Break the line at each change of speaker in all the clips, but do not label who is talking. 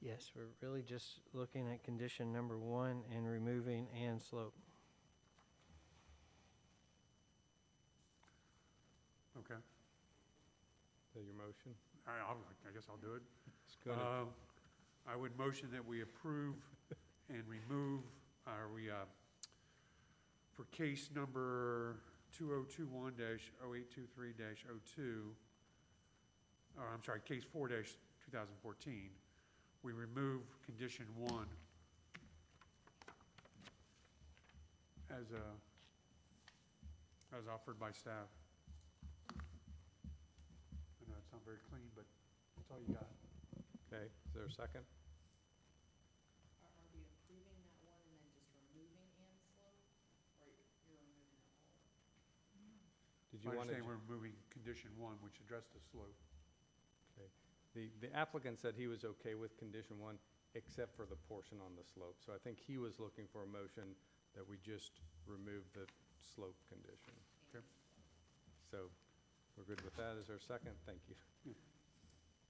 Yes, we're really just looking at condition number one and removing and slope.
Okay,
that your motion?
I, I'll- I guess I'll do it.
It's gonna,
Uh, I would motion that we approve and remove, are we, uh, for case number two oh two one dash oh eight two three dash oh two, or I'm sorry, case four dash two thousand fourteen, we remove condition one as a, as offered by staff. I know it's not very clean, but that's all you got.
okay, is there a second?
Are, are we approving that one and then just removing and slope, or you're removing the whole?
Mm-hmm.
Did you
I
want to?
understand we're moving condition one, which addressed the slope.
The the applicant said he was okay with condition one, except for the portion on the slope. So I think he was looking for a motion that we just remove the slope condition.
Okay.
So we're good with that. Is there a second? Thank you.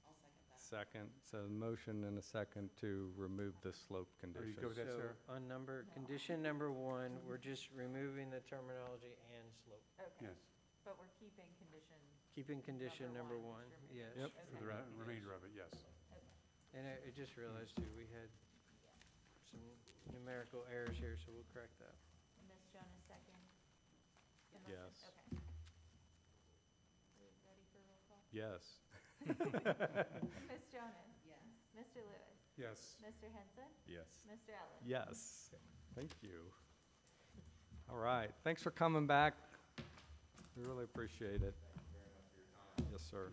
I'll second that.
Second, so a motion and a second to remove the slope
Are you
condition.
good with that,
So
Sarah?
On number, condition number one, we're just removing the terminology and slope.
Yes,
But we're keeping condition,
Keeping condition
Number
number one,
one is removed.
yes.
Yep.
for the re- remainder of it, yes.
And I, I just realized too, we had some numerical errors here, so we'll correct that.
Ms. Jonas second? The motion?
Yes.
Okay. We Ready for roll call?
Yes.
Ms. Jonas?
Yes.
Mr. Lewis?
Yes,
Mr. Henson?
Yes.
Mr. Ellis?
Yes. Thank you. All right, thanks for coming back. We really appreciate it. Yes, sir.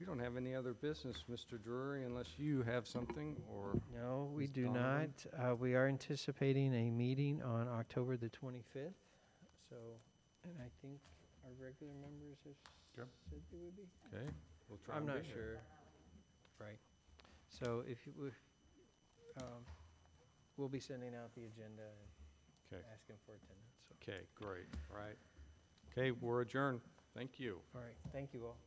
We don't have any other business, Mr. Drury, unless you have something or,
No, we
Ms.
do not.
Donovan?
Uh, we are anticipating a meeting on October the twenty-fifth, so, and I think our regular members have
Yep.
said they would be.
okay, we'll try
I'm
and
not
be here.
sure. Right. So if you, would, um, we'll be sending out the agenda and
'Kay.
asking for attendance. so.
Okay, great, all right. Okay, we're adjourned. Thank you.
All right, thank you all.